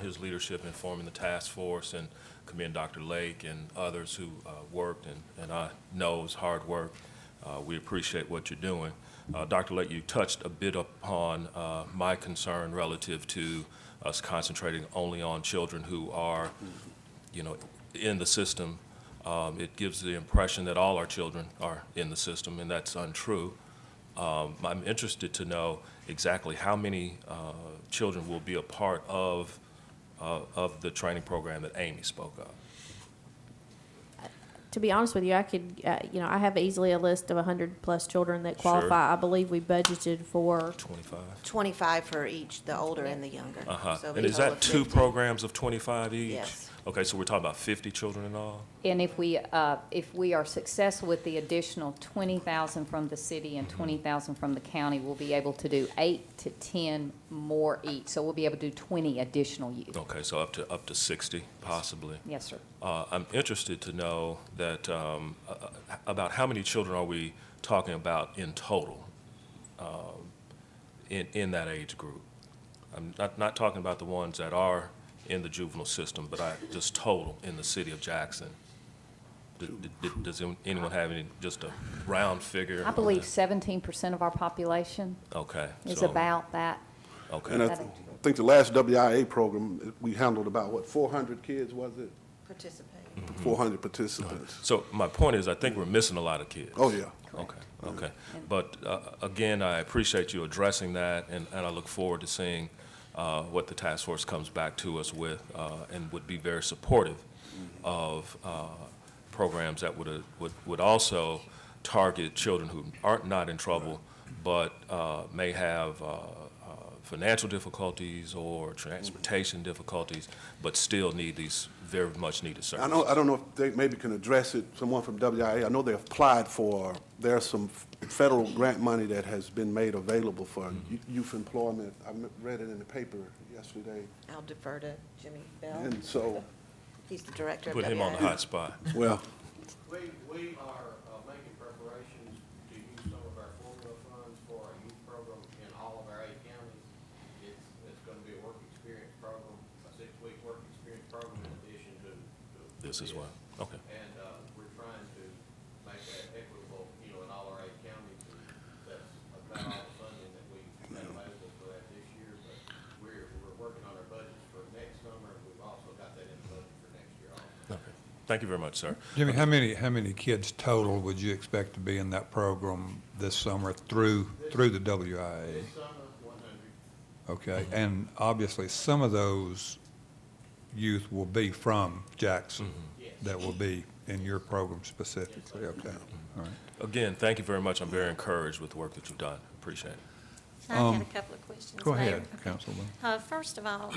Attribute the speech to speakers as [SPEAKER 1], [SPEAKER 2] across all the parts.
[SPEAKER 1] his leadership in forming the task force and commend Dr. Lake and others who uh, worked and, and I know it's hard work. Uh, We appreciate what you're doing. Uh, Dr. Lake, you touched a bit upon uh, my concern relative to us concentrating only on children who are, you know, in the system. Um, It gives the impression that all our children are in the system, and that's untrue. Um, I'm interested to know exactly how many uh, children will be a part of, uh, of the training program that Amy spoke of.
[SPEAKER 2] To be honest with you, I could, uh, you know, I have easily a list of 100 plus children that
[SPEAKER 1] Sure.
[SPEAKER 2] qualify. I believe we budgeted for,
[SPEAKER 1] 25?
[SPEAKER 3] 25 for each, the older and the younger. So
[SPEAKER 1] Uh-huh.
[SPEAKER 3] it'll be
[SPEAKER 1] And is
[SPEAKER 3] total of
[SPEAKER 1] that two
[SPEAKER 3] 50.
[SPEAKER 1] programs of 25 each?
[SPEAKER 3] Yes.
[SPEAKER 1] Okay, so we're talking about 50 children in all?
[SPEAKER 4] And if we, uh, if we are successful with the additional twenty thousand from the city and twenty thousand from the county, we'll be able to do eight to ten more each. So we'll be able to do twenty additional youth.
[SPEAKER 1] Okay, so up to, up to 60 possibly?
[SPEAKER 4] Yes, sir.
[SPEAKER 1] Uh, I'm interested to know that, um, uh, uh, about how many children are we talking about in total um, in, in that age group? I'm not, not talking about the ones that are in the juvenile system, but I, just total in the city of Jackson. D- d- d- Does anyone- anyone have any, just a round figure?
[SPEAKER 4] I believe seventeen percent of our population
[SPEAKER 1] Okay.
[SPEAKER 4] is
[SPEAKER 1] so-
[SPEAKER 4] about that.
[SPEAKER 1] Okay.
[SPEAKER 5] And I th- think the last WIA program, we handled about, what, 400 kids, was it?
[SPEAKER 3] Participate.
[SPEAKER 5] 400 participants.
[SPEAKER 1] So my point is, I think we're missing a lot of kids.
[SPEAKER 5] Oh, yeah.
[SPEAKER 1] Okay, okay. But uh, again, I appreciate you addressing that, and and I look forward to seeing uh, what the task force comes back to us with, uh, and would be very supportive of uh, programs that would, uh, would would also target children who aren't not in trouble, but uh, may have uh, uh, financial difficulties or transportation difficulties, but still need these very much-needed
[SPEAKER 5] I
[SPEAKER 1] services.
[SPEAKER 5] know, I don't know if they maybe can address it, someone from WIA. I know they applied for, there's some federal grant money that has been made available for y- youth employment. I m- read it in the paper yesterday.
[SPEAKER 3] I'll defer to Jimmy Bell.
[SPEAKER 5] And so,
[SPEAKER 3] He's the director of WIA.
[SPEAKER 1] Put him on the hot spot.
[SPEAKER 5] well,
[SPEAKER 6] We, we are uh, making preparations to use some of our formula funds for a youth program in all of our eight counties. It's, it's gonna be a work experience program, a six-week work experience program in addition to. to
[SPEAKER 1] This is why, okay.
[SPEAKER 6] And, uh, we're trying to make that equitable, you know, in all our eight counties. and That's about all the funding that we have available for that this year, but we're, we're working on our budgets for next summer. We've also got that in the budget for next year also.
[SPEAKER 1] Okay. Thank you very much, sir.
[SPEAKER 7] Jimmy, how many, how many kids total would you expect to be in that program this summer through, through the WIA?
[SPEAKER 6] This summer, one hundred.
[SPEAKER 7] Okay, and obviously, some of those youth will be from Jackson that will be in your program specifically, okay, all right.
[SPEAKER 1] Again, thank you very much. I'm very encouraged with the work that you've done. Appreciate it.
[SPEAKER 8] I had a couple of questions.
[SPEAKER 7] Um, Go
[SPEAKER 8] Mayor.
[SPEAKER 7] ahead,
[SPEAKER 8] Okay.
[SPEAKER 7] Councilman.
[SPEAKER 8] Uh, First of all,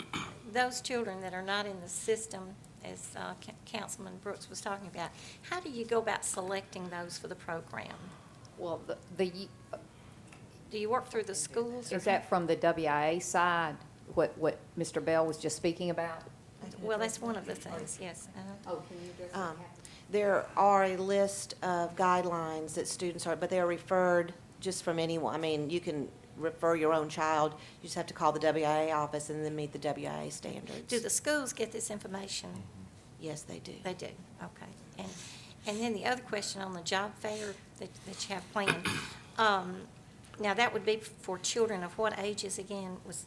[SPEAKER 8] those children that are not in the system, as uh, Ca- Councilman Brooks was talking about, how do you go about selecting those for the program?
[SPEAKER 4] Well, the- the, y-
[SPEAKER 8] Do you work through the schools? or-
[SPEAKER 4] is that from the WIA side, what, what Mr. Bell was just speaking about?
[SPEAKER 8] Well, that's one of the things, yes. uh-huh.
[SPEAKER 4] Oh, can you address
[SPEAKER 3] Um, There are a list of guidelines that students are, but they are referred just from anyone. I mean, you can refer your own child. You just have to call the WIA office and then meet the WIA standards.
[SPEAKER 8] Do the schools get this information?
[SPEAKER 3] Yes, they do.
[SPEAKER 8] They do, okay. And, and then the other question on the job fair that, that you have planned, um, now that would be for children of what ages again? Was,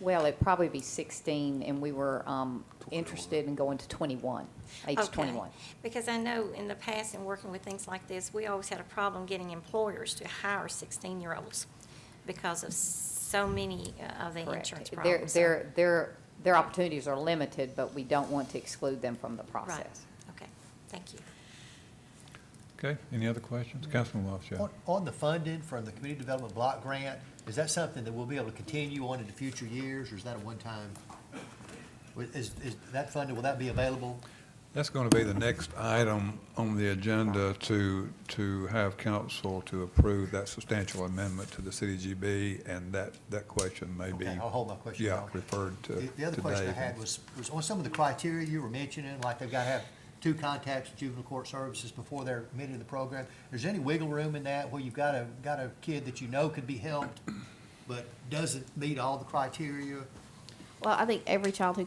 [SPEAKER 4] Well, it'd probably be 16, and we were um, interested in going to 21, age
[SPEAKER 8] Okay.
[SPEAKER 4] 21.
[SPEAKER 8] Because I know in the past, in working with things like this, we always had a problem getting employers to hire 16-year-olds because of so many uh, of the insurance
[SPEAKER 4] Correct. Their-
[SPEAKER 8] problems. so-
[SPEAKER 4] Their, their, their opportunities are limited, but we don't want to exclude them from the
[SPEAKER 8] Right,
[SPEAKER 4] process.
[SPEAKER 8] okay, thank you.
[SPEAKER 7] Okay, any other questions? Councilman Walsh,
[SPEAKER 9] On, on the funding from the Community Development Block Grant, is that something that we'll be able to continue on into future years, or is that a one-time? Is, is that funding, will that be available?
[SPEAKER 7] that's going to be the next item on the agenda to, to have council to approve that substantial amendment to the CDGB, and that, that question may be,
[SPEAKER 9] Okay, I'll hold my question.
[SPEAKER 7] yeah,
[SPEAKER 9] on.
[SPEAKER 7] referred to
[SPEAKER 9] The,
[SPEAKER 7] today.
[SPEAKER 9] the other question I had was, was on some of the criteria you were mentioning, like they've got to have two contacts with juvenile court services before they're admitted to the program. Is there any wiggle room in that, where you've got a, got a kid that you know could be helped, but doesn't meet all the criteria?
[SPEAKER 2] well, I think every child who